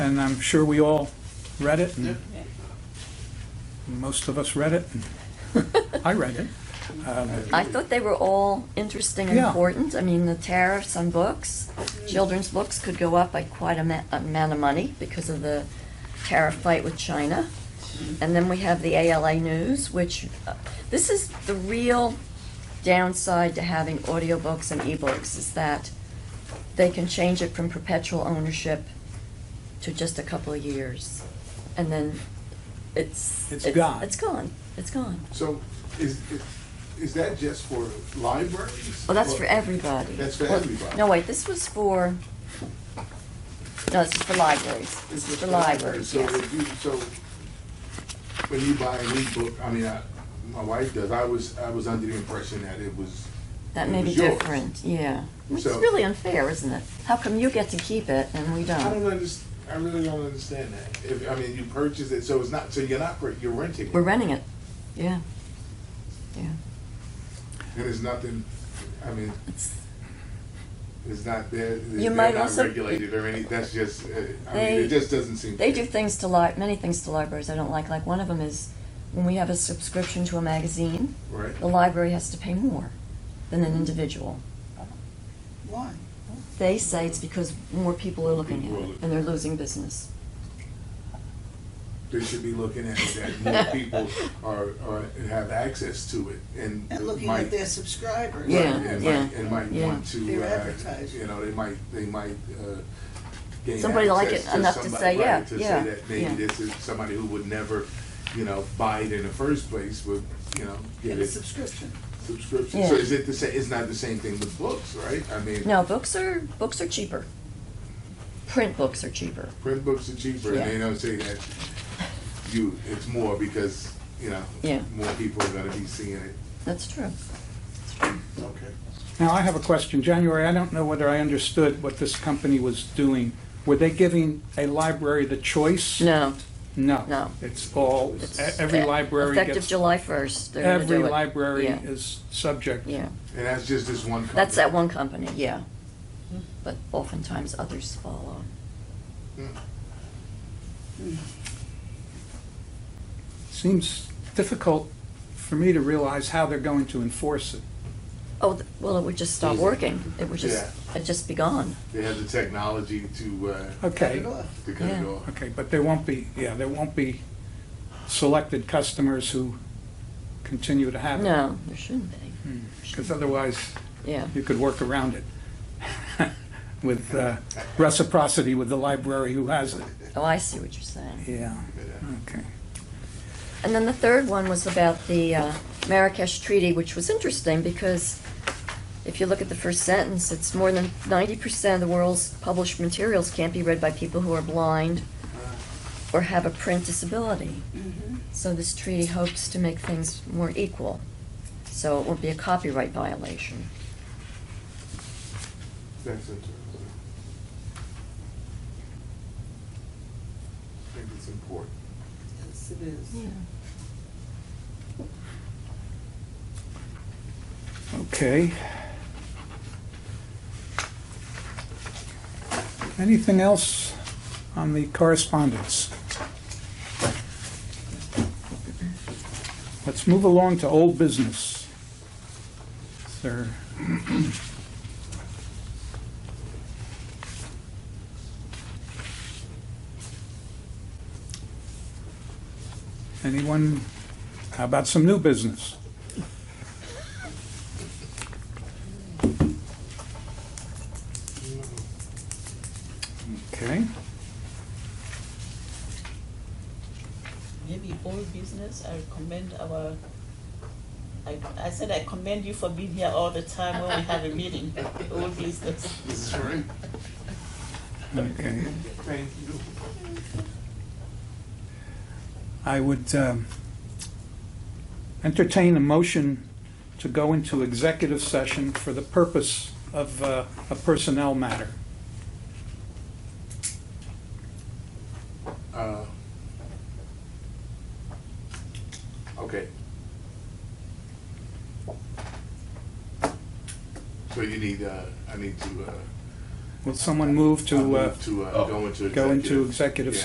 and I'm sure we all read it. and Most of us read it. and I read it. Um, I thought they were all interesting and Yeah. important. I mean, the tariffs on books, children's books could go up by quite a ma- amount of money because of the tariff fight with China. And then we have the ALA news, which, uh, this is the real downside to having audiobooks and ebooks is that they can change it from perpetual ownership to just a couple of years. And then it's. It's gone. It's gone. It's gone. So is, is- is that just for libraries? Well, that's for Or- everybody. That's for Well, everybody. No, wait, this was for, no, this is for libraries. It's This is just for libraries, So yes. if you, so when you buy a new book, I mean, I, my wife does, I was, I was under the impression that it was. That it may be was yours. different, yeah. Which is So- really unfair, isn't it? How come you get to keep it and we I don't don't? underst, I really don't understand that. If, I mean, you purchase it, so it's not, so you're not, pur- you're renting it. We're renting it, yeah. Yeah, And it's nothing, I mean, it's, it's not there, You they're might not also- regulated or any, that's just, uh, I mean, They- it just doesn't seem. they fair. do things to li, many things to libraries I don't like. Like, one of them is when we have a subscription to a magazine, Right? the library has to pay more than an individual. Why? They say it's because more people are looking People are at it looking. and they're losing business. they should be looking at it, that more people are, are, have access to it and. And looking might- at their subscribers. Yeah, right, and might- yeah, And might yeah. want to, They're uh, advertising. you know, they might, they might, uh, gain Somebody like access it enough to somebody- say, yeah, right, to say yeah, that Maybe yeah. this is somebody who would never, you know, buy it in the first place would, you know, get Get a it subscription. subscription. Yeah. So is it the same, it's not the same thing with books, right? I mean. No, books are books are cheaper. Print books are cheaper. Print books are cheaper, Yeah. and they don't say that you, it's more because, you know, Yeah. more people are gonna be seeing it. That's true. Okay. Now, I have a question. January, I don't know whether I understood what this company was doing. Were they giving a library the choice? No, No. No. It's all, e-, it's every uh, library gets. effective July first. They're gonna Every do it. library yeah. is subject. yeah. And that's just this one company? That's that one company. Yeah, Hmm. but oftentimes others follow. Seems difficult for me to realize how they're going to enforce it. Oh th- well, it would just stop Easy. working. It would just Yeah. it'd just be gone. They have the technology to, uh, Cut Okay, it off. to cut Yeah. it off. okay, but there won't be, yeah, there won't be selected customers who continue to have it. No, there shouldn't Hmm. be. Because otherwise, Yeah, you could work around it with uh, reciprocity with the library who has it. oh, I see what you're saying. Yeah, Yeah. okay. And then the third one was about the uh, Marrakesh Treaty, which was interesting because if you look at the first sentence, it's more than 90% of the world's published materials can't be read by people who are blind or have a print disability. So this treaty hopes to make things more equal. So it won't be a copyright violation. That's interesting. I think it's important. Yes, it is. Okay. Anything else on the correspondence? Let's move along to old business. Sir, anyone, how about some new business? Okay. Maybe old business, I commend our, I, I said I commend you for being here all the time when we have a meeting, old business. This is right. Okay. Thank you. I would um, entertain a motion to go into executive session for the purpose of uh, a personnel matter. Uh, Okay. So you need, uh, I need to, uh, Will someone move to, uh, To, uh, Oh. go into. go into executive. executive Yeah.